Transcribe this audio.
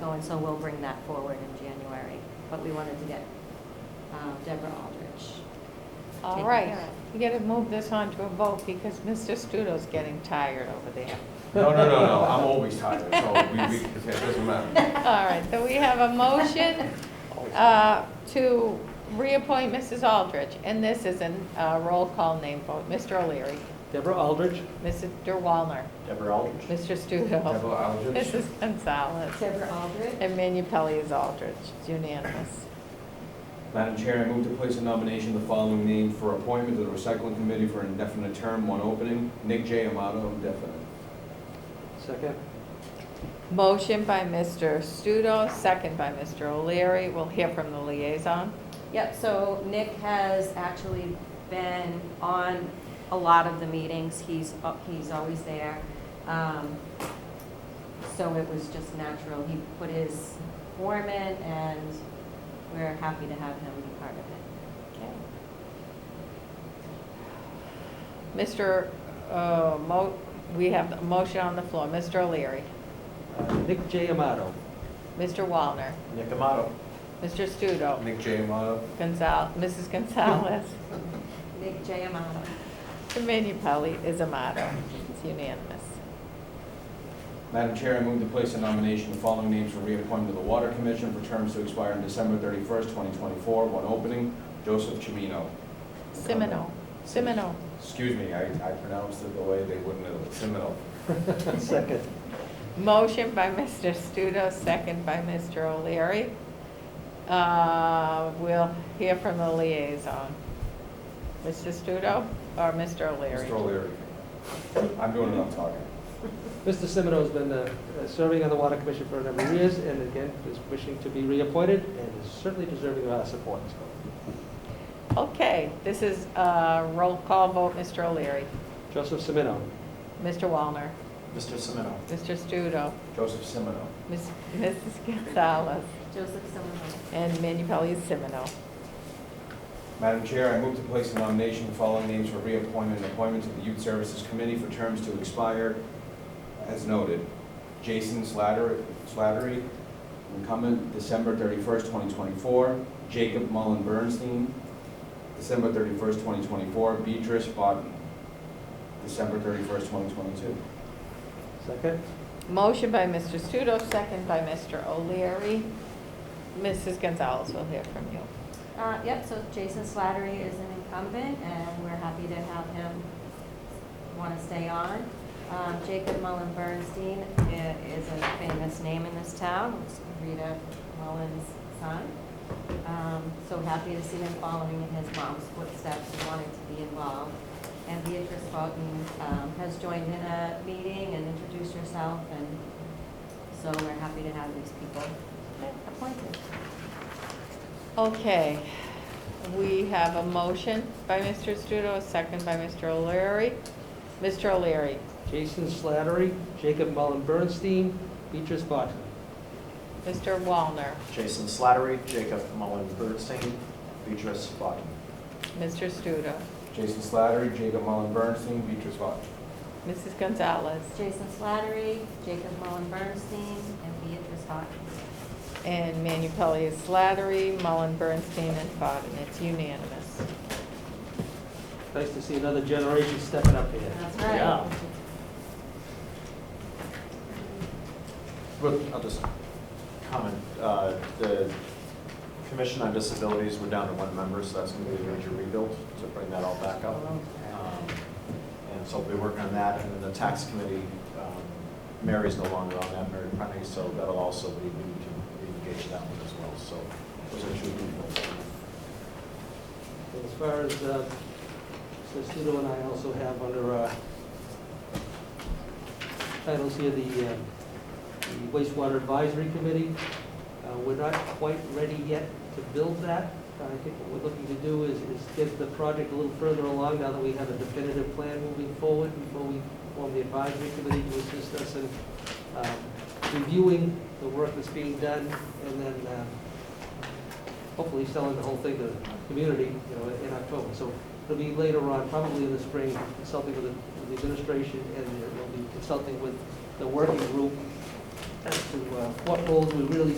going, Oh, so we'll bring that forward in January. But we wanted to get um, Deborah Aldrich. All taken right, care we gotta move this on to a vote because Mr. Studo's getting tired over there. No, no, no, no, I'm always tired, so we, we, it doesn't matter. All right, so we have a motion uh, to reappoint Mrs. Aldrich, and this is a uh, roll call name vote. Mr. O'Leary, Deborah Aldridge. Mr. Wallner, Deborah Aldridge. Mr. Studo, Deborah Aldrich. Mrs. Gonzalez, Deborah Aldrich? and Manu Pelley is Aldrich, It's unanimous. Madam Chair, I move to place a nomination of the following name for appointment to the recycling committee for an indefinite term, one opening, Nick J. Amato, indefinite. Second. Motion by Mr. Studo, second by Mr. O'Leary. We'll hear from the liaison. Yep, so Nick has actually been on a lot of the meetings. He's, uh, he's always there. Um, So it was just natural. He put his form in and we're happy to have him be part of it. Mr., uh, Mo, we have a motion on the floor. Mr. O'Leary, Uh, Nick J. Amato. Mr. Wallner, Nick Amato. Mr. Studo, Nick J. Amato. Gonzal, Mrs. Gonzalez, Nick J. Amato. and Manu Pelley is a motto. It's unanimous. Madam Chair, I move to place a nomination of the following names for reappointment to the water commission for terms to expire on December thirty-first, twenty twenty-four, one opening, Joseph Chimino. Semino, Semino. Excuse me, I, I pronounced it the way they wouldn't have, Chimino. Second. Motion by Mr. Studo, second by Mr. O'Leary. Uh, We'll hear from the liaison. Mr. Studo or Mr. O'Leary? Mr. O'Leary. I'm doing enough talking. Mr. Semino's been uh, uh, serving on the Water Commission for a number of years, and again, is wishing to be reappointed, and is certainly deserving of our support. So, Okay, this is a roll call vote, Mr. O'Leary, Joseph Semino. Mr. Wallner, Mr. Semino. Mr. Studo, Joseph Semino. Ms- Mrs. Gonzalez, Joseph Simon. and Manu Pelley Semino. Madam Chair, I move to place a nomination of the following names for reappointment and appointment to the Youth Services Committee for terms to expire as noted. Jason Slatter- Slattery, incumbent, December 31st, 2024. Jacob Mullen Bernstein, December 31st, 2024. Beatrice Bodden, December 31st, 2022. Second. Motion by Mr. Studo, second by Mr. O'Leary. Mrs. Gonzalez, we'll hear from you. Uh, yep, so Jason Slattery is an incumbent, and we're happy to have him want to stay on. Um, Jacob Mullen Bernstein i- is a famous name in this town, It's Rita Mullen's son. Um, so happy to see him following in his mom's footsteps and wanting to be involved. And Beatrice Fulton, um, has joined in a meeting and introduced herself, and so we're happy to have these people appointed. Okay, we have a motion by Mr. Studo, a second by Mr. O'Leary. Mr. O'Leary, Jason Slattery, Jacob Mullen Bernstein, Beatrice Barton. Mr. Wallner, Jason Slattery, Jacob Mullen Bernstein, Beatrice Bodden. Mr. Studo, Jason Slattery, Jacob Mullen Bernstein, Beatrice Bodden. Mrs. Gonzalez, Jason Slattery, Jacob Mullen Bernstein, and Beatrice Hawkins. and Manu Pelley is Slattery, Mullen, Bernstein, and Fodden. It's unanimous. Nice to see another generation stepping up here. That's Yeah. right. But I'll just comment, uh, the Commission on Disabilities, we're down to one member, so that's going to be a major rebuild to bring that all back up. Um, And so we'll be working on that, and then the Tax Committee, um, Mary's no longer on that, Mary Prunty, so that'll also be, we need to engage that one as well, so those are two rebuilds. And As far as, uh, Mr. Studo and I also have under our titles here, the uh, the wastewater advisory committee, Uh, we're not quite ready yet to build that. I think what we're looking to do is, is get the project a little further along now that we have a definitive plan moving forward before we form the advisory committee to assist us in um, reviewing the work that's being done and then uh, hopefully selling the whole thing to the community, you know, in October. So it'll be later on, probably in the spring, consulting with the with the administration, and we'll be consulting with the working group as to uh, what roles we really